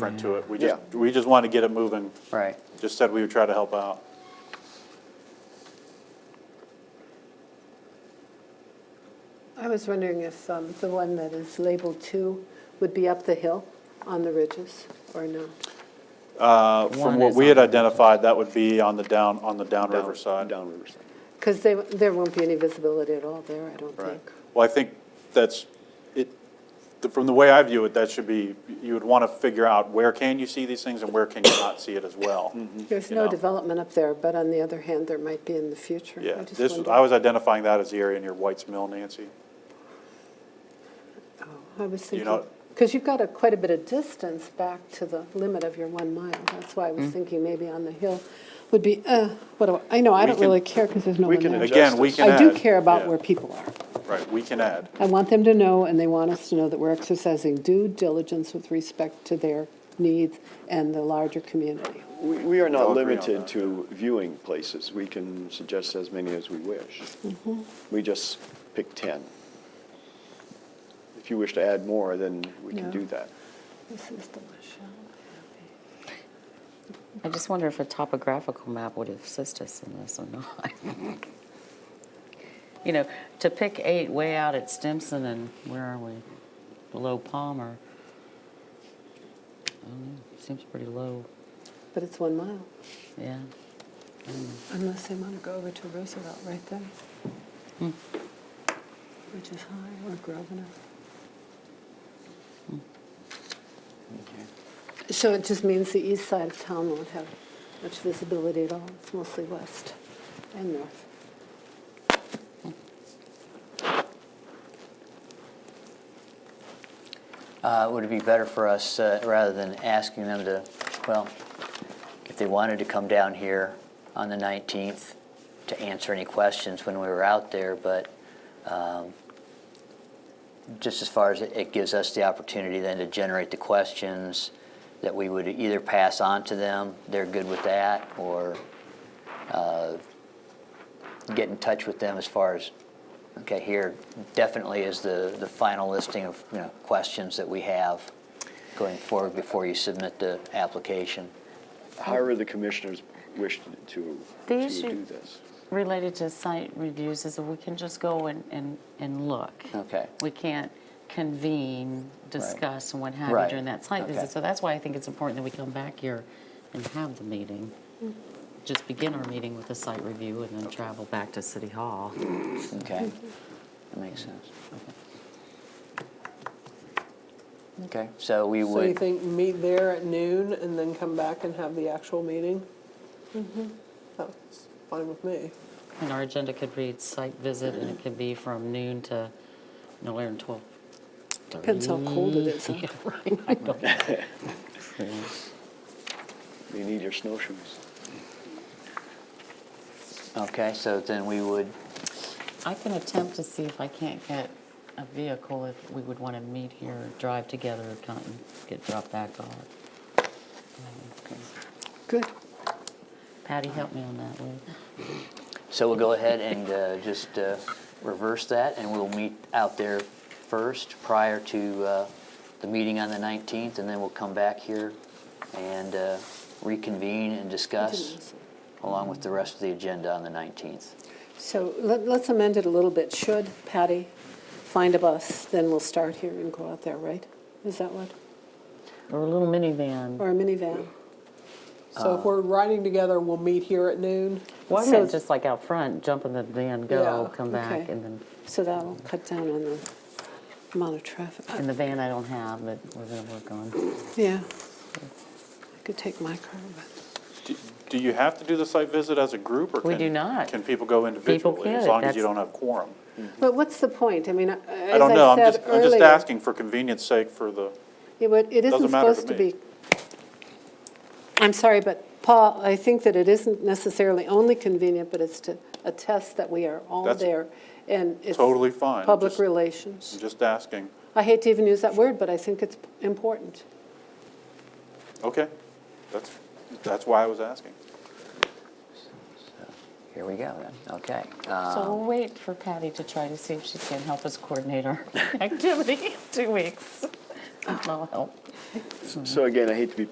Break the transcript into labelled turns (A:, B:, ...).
A: front to it. We
B: Yeah.
A: just, we just wanted to get it moving.
C: Right.
A: Just said we would try to help out.
D: I was wondering if um, the one that is labeled two would be up the hill on the ridges, or no?
A: Uh, From
C: One
A: what
C: is
A: we had
C: on the-
A: identified, that would be on the down, on the downriver side.
B: Downriver side.
D: Because there won't be any visibility at all there, I don't
A: Right.
D: think.
A: Well, I think that's, it, the- from the way I view it, that should be, you would want to figure out where can you see these things and where can you not see it as well.
C: Mm-hmm.
D: There's
A: Mm, You
D: no
A: know.
D: development up there, but on the other hand, there might be in the future.
A: Yeah,
D: just
A: this,
D: wondered.
A: I was identifying that as the area near White's Mill, Nancy.
D: I was
A: you know-
D: thinking, because you've got a, quite a bit of distance back to the limit of your one mile. That's why I
A: Mm.
D: was thinking maybe on the hill would be, uh, what do I, I know, I
B: We
D: don't
B: can-
D: really care because there's no
B: we
D: one
B: can
D: there.
B: adjust
A: Again, we
B: Justice.
A: can add.
D: I do care about
A: yeah,
D: where people are.
A: Right, we can add.
D: I want them to know, and they want us to know, that we're exercising due diligence with respect to their needs and the larger community.
B: We, we are not
A: I'll agree on
B: limited
A: that,
B: to viewing places. We can suggest as many as we wish.
C: Mm-hmm.
B: We just pick 10. If you wish to add more, then we can
D: Yeah.
B: do that.
D: This is the Michelle.
C: I just wonder if a topographical map would assist us in this or not. You know, to pick eight way out at Stimson and where are we? Below Palmer. I don't know, seems pretty low,
D: But it's one mile,
C: yeah.
D: unless they want to go over to Roosevelt right there. Which is high, or Grosvenor. So it just means the east side of town won't have much visibility at all. It's mostly west and north.
E: Uh, Would it be better for us, uh, rather than asking them to, well, if they wanted to come down here on the 19th to answer any questions when we were out there, but um, just as far as it- it gives us the opportunity then to generate the questions that we would either pass on to them, they're good with that, or uh, get in touch with them as far as Okay, here definitely is the, the final listing of, you know, questions that we have going forward before you submit the application.
B: However, the commissioners wish to,
C: The
B: to
C: issue-
B: do this.
C: Related to site reviews is that we can just go and, and, and look.
E: Okay.
C: We can't convene, discuss, and what have you
E: Right.
C: during that site
E: Okay.
C: visit. So that's why I think it's important that we come back here and have the meeting. Just begin our meeting with a site review and then travel back to City Hall.
E: Okay, that makes sense. Okay. Okay, so we
F: So you
E: would,
F: think meet there at noon and then come back and have the actual meeting? That's fine with me.
C: And our agenda could read site visit, and it could be from noon to no later than twelve.
D: Depends how cold it is, huh?
C: Yeah, right, I don't know.
B: You need your snowshoes.
E: okay, so then we would,
C: I can attempt to see if I can't get a vehicle, if we would want to meet here, drive together, come and get dropped back off.
D: Good.
C: Patty, help me on that one.
E: so we'll go ahead and uh, just uh, reverse that, and we'll meet out there first prior to uh, the meeting on the 19th, and then we'll come back here and uh, reconvene and discuss along with the rest of the agenda on the 19th.
D: So let- let's amend it a little bit. Should Patty find a bus, then we'll start here and go out there, right? Is that what?
C: Or a little minivan.
D: Or a minivan?
F: So if we're riding together, we'll meet here at noon.
C: Why
D: So-
C: not just like out front, jump in the van, go,
F: Yeah,
C: come back,
D: okay.
C: and then,
D: So that'll cut down on the amount of traffic.
C: and the van I don't have, but we're gonna work on.
D: Yeah. I could take my car, but
A: Do- Do you have to do the site visit as a group, or
C: We
A: can-
C: do not.
A: Can people go individually, as
C: could,
A: long as you
C: that's-
A: don't have quorum?
D: but what's the point? I mean, as
A: I don't know, I'm
D: said
A: just, I'm just
D: earlier,
A: asking for convenience sake for the,
D: It would, it isn't
A: Doesn't matter to
D: supposed to
A: me.
D: be. I'm sorry, but Paul, I think that it isn't necessarily only convenient, but it's to attest that we are all
A: That's
D: there. And it's.
A: Totally fine,
D: Public
A: just- I'm
D: relations.
A: just asking.
D: I hate to even use that word, but I think it's important.
A: Okay, that's, that's why I was asking.
E: Here we go then, okay. Uh,
C: So we'll wait for Patty to try to see if she can help us coordinate our activity in two weeks. That'll help.
B: So again, I hate to be